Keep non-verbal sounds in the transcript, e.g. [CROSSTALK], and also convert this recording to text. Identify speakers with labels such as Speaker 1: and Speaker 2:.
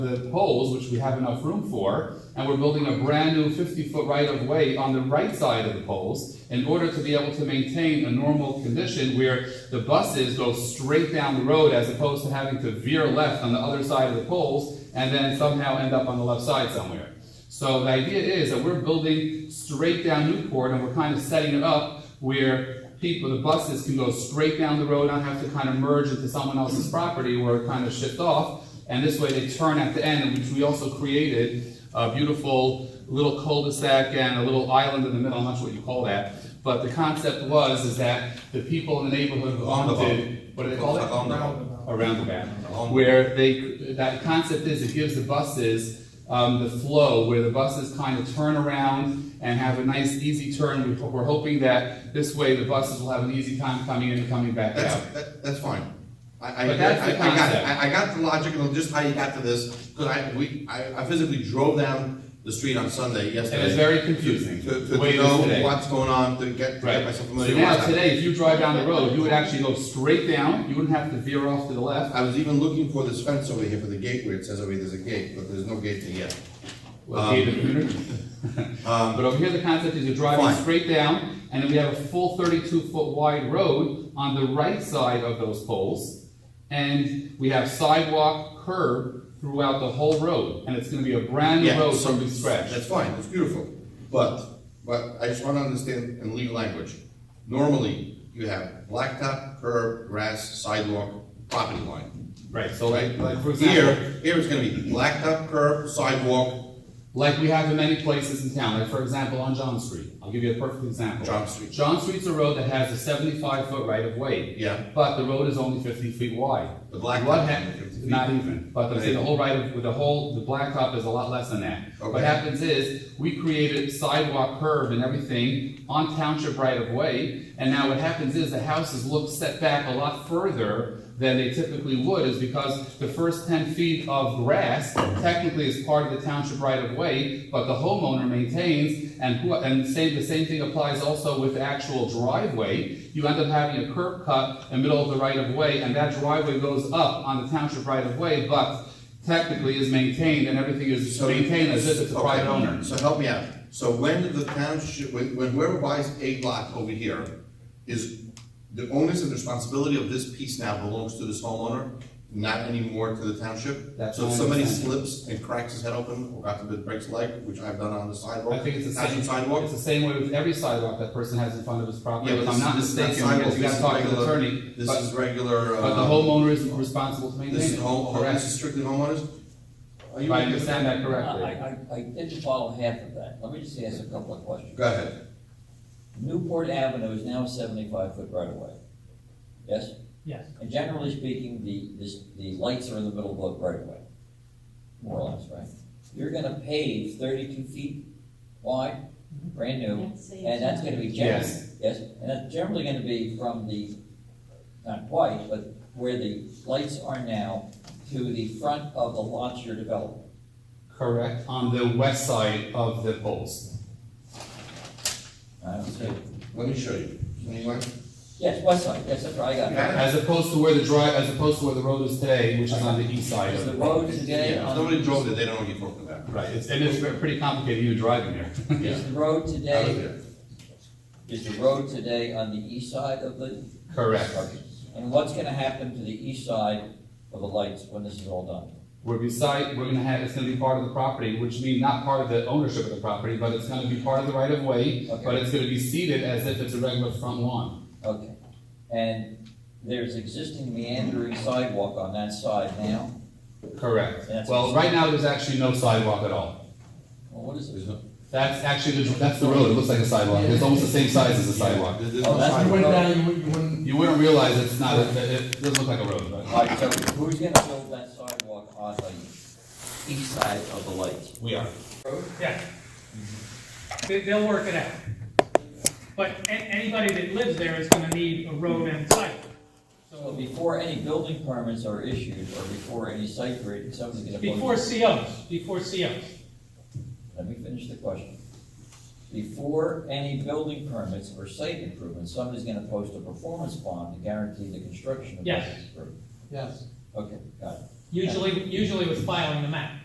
Speaker 1: the poles, which we have enough room for, and we're building a brand new fifty-foot right-of-way on the right side of the poles in order to be able to maintain a normal condition where the buses go straight down the road as opposed to having to veer left on the other side of the poles and then somehow end up on the left side somewhere. So the idea is that we're building straight down Newport and we're kind of setting it up where people, the buses can go straight down the road, not have to kind of merge into someone else's property or kind of shift off. And this way they turn at the end, which we also created a beautiful little cul-de-sac and a little island in the middle, I'm not sure what you call that. But the concept was is that the people in the neighborhood wanted, what do they call it?
Speaker 2: Roundabout.
Speaker 1: Around the back,
Speaker 2: Roundabout.
Speaker 1: where they, that concept is it gives the buses, um, the flow, where the buses kind of turn around and have a nice easy turn. We- We're hoping that this way the buses will have an easy time coming in and coming back out.
Speaker 2: That's, that- that's fine. I, I,
Speaker 1: But that's the
Speaker 2: I I got it,
Speaker 1: concept.
Speaker 2: I, I got the logic and just how you got to this, because I, we, I I physically drove down the street on Sunday
Speaker 1: And
Speaker 2: yesterday.
Speaker 1: it's very confusing,
Speaker 2: To,
Speaker 1: the
Speaker 2: to
Speaker 1: way
Speaker 2: to
Speaker 1: it is
Speaker 2: know
Speaker 1: today.
Speaker 2: what's going on, to get, to get
Speaker 1: Right,
Speaker 2: myself
Speaker 1: so
Speaker 2: familiar with
Speaker 1: now
Speaker 2: that.
Speaker 1: today, if you drive down the road, you would actually go straight down, you wouldn't have to veer off to the left.
Speaker 2: I was even looking for this fence over here for the gate where it says over here there's a gate, but there's no gate there yet.
Speaker 1: Okay, the commuter.
Speaker 2: [LAUGHS] Um,
Speaker 1: But over here, the concept is you're driving
Speaker 2: Fine.
Speaker 1: straight down, and then we have a full thirty-two foot wide road on the right side of those poles. And we have sidewalk curb throughout the whole road, and it's gonna be a brand new
Speaker 2: Yeah,
Speaker 1: road
Speaker 2: so-
Speaker 1: from scratch.
Speaker 2: That's fine, it's beautiful, but, but I just wanna understand in legal language. Normally, you have blacktop, curb, grass, sidewalk, property line,
Speaker 1: Right, so
Speaker 2: right?
Speaker 1: like, like, for example,
Speaker 2: Here, here it's gonna be blacktop, curb, sidewalk,
Speaker 1: like we have in many places in town, like for example, on John Street, I'll give you a perfect example.
Speaker 2: John Street.
Speaker 1: John Street's a road that has a seventy-five foot right of way.
Speaker 2: Yeah.
Speaker 1: But the road is only fifty feet wide.
Speaker 2: The blacktop
Speaker 1: What
Speaker 2: is
Speaker 1: hap-
Speaker 2: only 50 feet.
Speaker 1: Not even, but the, the whole right of, with the whole, the blacktop is a lot less than that. What
Speaker 2: Okay.
Speaker 1: happens is, we created sidewalk curb and everything on township right of way, and now what happens is the houses look set back a lot further than they typically would, is because the first ten feet of grass technically is part of the township right of way, but the homeowner maintains, and who, and same, the same thing applies also with the actual driveway. You end up having a curb cut in the middle of the right of way, and that driveway goes up on the township right of way, but technically is maintained and everything is
Speaker 2: So-
Speaker 1: maintained as if it's a
Speaker 2: Okay,
Speaker 1: private owner.
Speaker 2: So help me out, so when the township, when, when whoever buys a lot over here, is the onus and responsibility of this piece now belongs to this homeowner, not anymore to the township?
Speaker 1: That's
Speaker 2: So if
Speaker 1: my
Speaker 2: somebody
Speaker 1: understanding.
Speaker 2: slips and cracks his head open, or God forbid breaks a leg, which I've done on the sidewalk.
Speaker 1: I think it's the
Speaker 2: not
Speaker 1: same,
Speaker 2: on sidewalk,
Speaker 1: it's the same way with every sidewalk that person has in front of his property,
Speaker 2: Yeah, but
Speaker 1: if I'm
Speaker 2: this-
Speaker 1: not
Speaker 2: this is not
Speaker 1: mistaken, because
Speaker 2: sidewalk,
Speaker 1: you
Speaker 2: this
Speaker 1: gotta
Speaker 2: is
Speaker 1: talk to the
Speaker 2: regular-
Speaker 1: attorney,
Speaker 2: This
Speaker 1: but,
Speaker 2: is regular, uh.
Speaker 1: but the homeowner is responsible to
Speaker 2: This
Speaker 1: maintain
Speaker 2: is
Speaker 1: it,
Speaker 2: home, this is
Speaker 1: correct?
Speaker 2: strictly homeowners? Are
Speaker 1: If
Speaker 2: you
Speaker 1: I understand that
Speaker 3: Uh, I,
Speaker 1: correctly.
Speaker 3: I, I didn't follow half of that. Let me just ask a couple of questions.
Speaker 2: Go ahead,
Speaker 3: Newport Avenue is now seventy-five foot right away. Yes?
Speaker 4: Yes.
Speaker 3: And generally speaking, the, this, the lights are in the middle of the right away. More or less, right? You're gonna pave thirty-two feet wide, brand new, and that's gonna be generally,
Speaker 1: Yes.
Speaker 3: yes? And that's generally gonna be from the, not quite, but where the lights are now to the front of the lots you're developing.
Speaker 1: Correct, on the west side of the poles.
Speaker 3: I don't see.
Speaker 2: let me show you. Anyone?
Speaker 3: Yes, west side, yes, that's right, I got it.
Speaker 1: As opposed to where the drive, as opposed to where the road is today, which is on the east side
Speaker 3: Is
Speaker 1: of
Speaker 3: the
Speaker 1: the
Speaker 3: road
Speaker 2: Yeah,
Speaker 3: today
Speaker 2: if
Speaker 3: on,
Speaker 2: somebody drove it, they don't know what you're talking about.
Speaker 1: Right, it's, and it's pretty complicated even driving there. [LAUGHS]
Speaker 3: is the road
Speaker 2: I was
Speaker 3: today,
Speaker 2: there.
Speaker 3: is the road today on the east side of the?
Speaker 1: Correct.
Speaker 3: And what's gonna happen to the east side of the lights when this is all done?
Speaker 1: Where we site, we're gonna have, it's gonna be part of the property, which means not part of the ownership of the property, but it's gonna be part of the right of way,
Speaker 3: Okay.
Speaker 1: but it's gonna be seeded as if it's a regular front lawn.
Speaker 3: Okay, and there's existing meandering sidewalk on that side now?
Speaker 1: Correct.
Speaker 3: That's-
Speaker 1: Well, right now, there's actually no sidewalk at all.
Speaker 3: Well, what is it? Oh,
Speaker 2: There's no-
Speaker 1: That's actually, the that's the road, it looks like a sidewalk, it's almost the same size as a sidewalk.
Speaker 2: There's no
Speaker 3: Oh, that's-
Speaker 4: You
Speaker 2: sidewalk.
Speaker 4: went down, you wouldn't, you wouldn't,
Speaker 1: You wouldn't realize it's not, a- it it doesn't look like a road, but
Speaker 3: All right, so who's gonna build that sidewalk on the east side of the lights?
Speaker 1: we are.
Speaker 4: yeah. They, they'll work it out. But a- anybody that lives there is gonna need a road and site.
Speaker 3: So
Speaker 4: So,
Speaker 3: before any building permits are issued, or before any site grading, somebody's gonna. build-
Speaker 4: before COs, before COs.
Speaker 3: Let me finish the question. Before any building permits or site improvements, somebody's gonna post a performance bond to guarantee the construction of
Speaker 4: Yes.
Speaker 3: this improvement.
Speaker 4: Yes.
Speaker 3: Okay, got it.
Speaker 4: usually, usually with filing the map.